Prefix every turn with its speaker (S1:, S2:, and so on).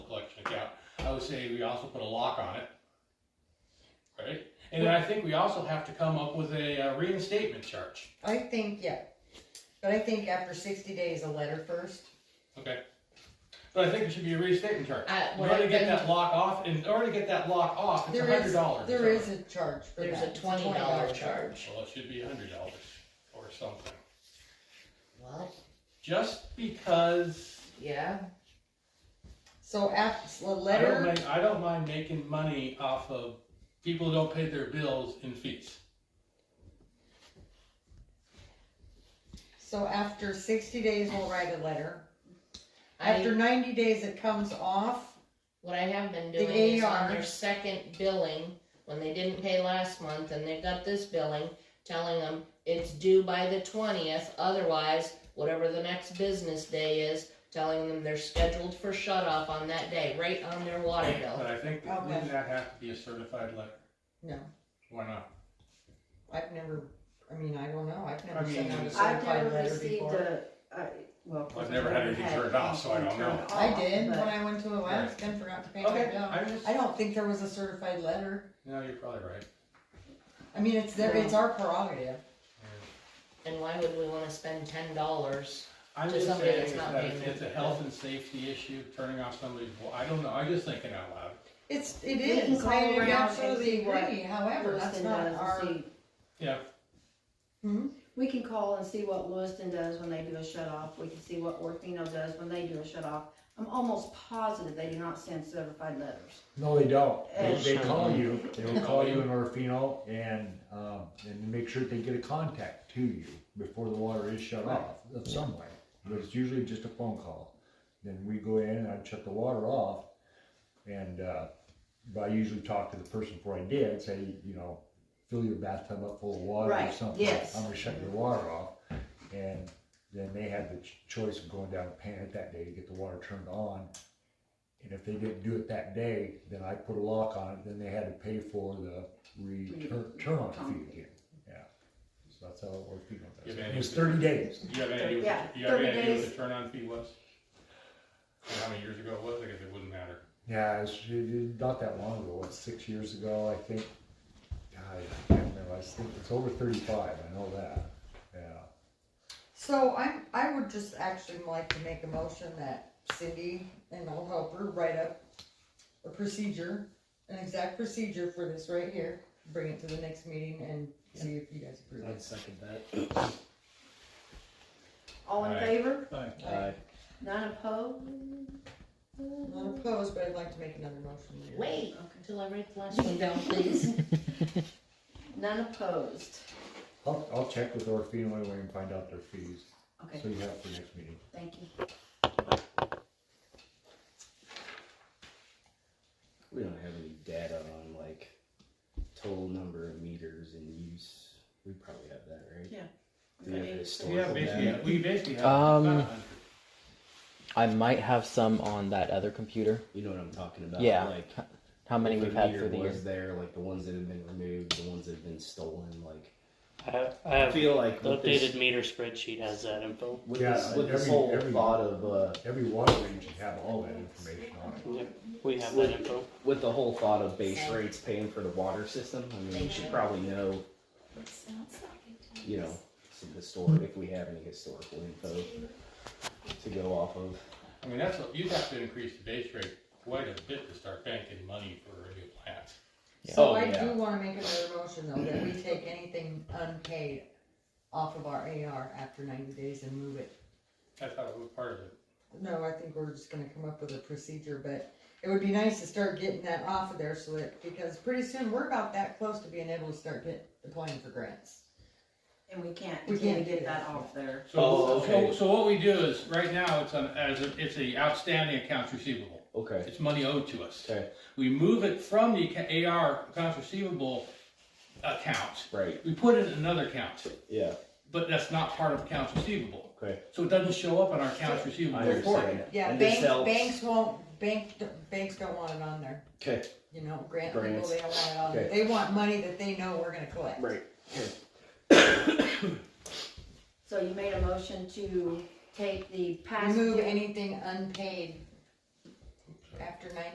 S1: I would say we also put a lock on it. Right? And then I think we also have to come up with a uh, reinstatement charge.
S2: I think, yeah, but I think after sixty days, a letter first.
S1: Okay. But I think it should be a reinstatement charge.
S2: Uh,
S1: In
S2: well,
S1: order to get
S2: then-
S1: that lock off, in order to get that lock off, it's a
S2: There
S1: hundred
S2: is,
S1: dollars.
S2: there is a charge for that.
S3: There's a
S2: It's
S3: twenty dollar
S2: $20
S3: charge.
S1: Well, it should be a hundred dollars or something.
S3: Well,
S1: Just because
S3: yeah,
S2: So after, a
S1: I don't
S2: letter,
S1: mind, I don't mind making money off of people who don't pay their bills and fees.
S2: so after sixty days, we'll write a letter. After
S3: I,
S2: ninety days, it comes off.
S3: what I have been
S2: The
S3: doing is
S2: AR.
S3: on their second billing, when they didn't pay last month and they got this billing, telling them it's due by the twentieth, otherwise, whatever the next business day is, telling them they're scheduled for shut off on that day, right on their water bill.
S1: But I think, that-
S2: Okay.
S1: wouldn't that have to be a certified letter?
S2: No,
S1: Why not?
S2: I've never, I mean, I don't know, I've
S1: I
S2: never
S1: mean,
S2: sent out a
S1: I've
S4: I've
S2: certified
S4: never
S2: letter
S4: received
S2: before.
S4: a, I, well. of course,
S1: I've never had anything turned off, so I don't
S4: anything
S1: know.
S4: turned
S2: I
S4: off,
S2: did, when
S4: but-
S2: I went to Alaska and forgot to pay my
S1: Okay,
S2: bill.
S1: I just,
S2: I don't think there was a certified letter.
S1: no, you're probably right.
S2: I mean, it's their, it's our prerogative.
S3: And why would we wanna spend ten dollars?
S1: I'm
S3: To
S1: just
S3: somebody
S1: saying
S3: that's
S1: is
S3: not
S1: that
S3: paying
S1: it's-
S3: their
S1: it's a
S3: bill.
S1: health and safety issue, turning off somebody's, wa- I don't know, I'm just thinking out loud.
S2: It's, it
S4: We can
S2: is,
S4: call
S2: I
S4: around and
S2: absolutely
S4: see what
S2: agree, however, that's
S4: Lewiston
S2: not
S4: does and
S2: our,
S4: see-
S1: Yeah.
S2: Hmm?
S4: We can call and see what Lewiston does when they do a shut off, we can see what Orfino does when they do a shut off. I'm almost positive they do not send certified letters.
S5: No, they don't.
S4: Oh,
S5: They, they
S3: Uh,
S5: call you, they will call you in Orfino and, um, and make sure they get a contact to you before the water is shut off, of some way. But it's usually just a phone call. Then we go in and I shut the water off. And, uh, but I usually talk to the person before I did, say, you know, fill your bathtub up full of water or
S4: Right,
S5: something.
S4: yes.
S5: I'm gonna shut your water off. And then they had the ch- choice of going down and paying it that day to get the water turned on. And if they didn't do it that day, then I put a lock on it, then they had to pay for the return, turn on fee again, yeah. So that's how it worked, you know,
S1: Yeah,
S5: that's-
S1: man.
S5: it was thirty days.
S1: Do you have any idea,
S4: Yeah,
S1: what the- you have any
S4: 30
S1: idea what the
S4: days.
S1: turn on fee was? And how many years ago it was, I guess it wouldn't matter.
S5: Yeah, it was, it- it- not that long ago, what, six years ago, I think, God, I can't remember, I think it's over thirty-five, I know that, yeah.
S2: so I'm, I would just actually like to make a motion that Cindy and I'll help her write up a procedure, an exact procedure for this right here, bring it to the next meeting and see if you guys approve it.
S6: second that.
S4: All in
S1: Aye.
S4: favor?
S6: Aye.
S4: None opposed?
S2: Not opposed, but I'd like to make another motion later.
S3: Wait,
S4: Okay.
S3: until I write the last one down, please.
S4: None opposed.
S5: I'll, I'll check with Orfino anyway and find out their fees,
S4: Okay,
S5: so you have it for next meeting.
S4: thank you.
S6: We don't have any data on like total number of meters in use. We probably have that, right?
S4: Yeah.
S6: Do we have a
S1: Yeah,
S6: historical
S1: basically,
S6: data?
S1: we basically have. about
S7: Um,
S1: a hundred.
S7: I might have some on that other computer.
S6: You know what I'm talking about?
S7: Yeah.
S6: Like
S7: How many
S6: if a
S7: we've had
S6: meter
S7: through the
S6: was
S7: years?
S6: there, like the ones that have been removed, the ones that have been stolen. Like
S8: I have, I
S6: I
S8: have
S6: feel like
S8: the
S6: with
S8: updated
S6: this,
S8: meter spreadsheet has that info.
S6: with
S5: Yeah,
S6: this, with this
S5: every-
S6: whole
S5: every-
S6: thought of uh,
S5: Every water range should have all that information on it.
S8: Yep, we have that info.
S6: with the whole thought of base
S3: Same.
S6: rates paying for the water system. I mean,
S3: They
S6: we should
S3: do.
S6: probably know, you know, some historic if we have any historical info to go off of.
S1: I mean, that's what, you'd have to increase the base rate quite a bit to start banking money for a new plant.
S2: So
S6: Oh,
S2: I
S6: yeah.
S2: do wanna make another motion though, that we take anything unpaid off of our AR after ninety days and move it.
S1: I thought it was part of it.
S2: No, I think we're just gonna come up with a procedure, but it would be nice to start getting that off of there so that, because pretty soon, we're about that close to being able to start get, applying for grants.
S4: And we can't,
S2: We
S4: we can't
S2: can't
S4: get
S2: do
S4: that
S2: that.
S4: off there.
S1: So,
S6: Oh, okay.
S1: so, so what we do is, right now, it's an, as, a- it's a outstanding accounts receivable.
S6: Okay.
S1: It's money owed to us.
S6: Okay.
S1: We move it from the ca- AR, accounts receivable account.
S6: Right.
S1: We put it in another account,
S6: Yeah.
S1: but that's not part of accounts receivable.
S6: Okay.
S1: So it doesn't show up in our accounts receivable
S6: I
S1: report.
S6: understand.
S2: Yeah,
S6: And this
S2: banks,
S6: helps-
S2: banks won't, bank, banks don't want it on there,
S6: Okay.
S2: you know, grant people,
S6: Grants.
S2: they don't want it on there,
S6: Okay.
S2: they want money that they know we're gonna collect.
S6: Right.
S4: So you made a motion to take the past.
S2: Remove
S4: due-
S2: anything unpaid after ninety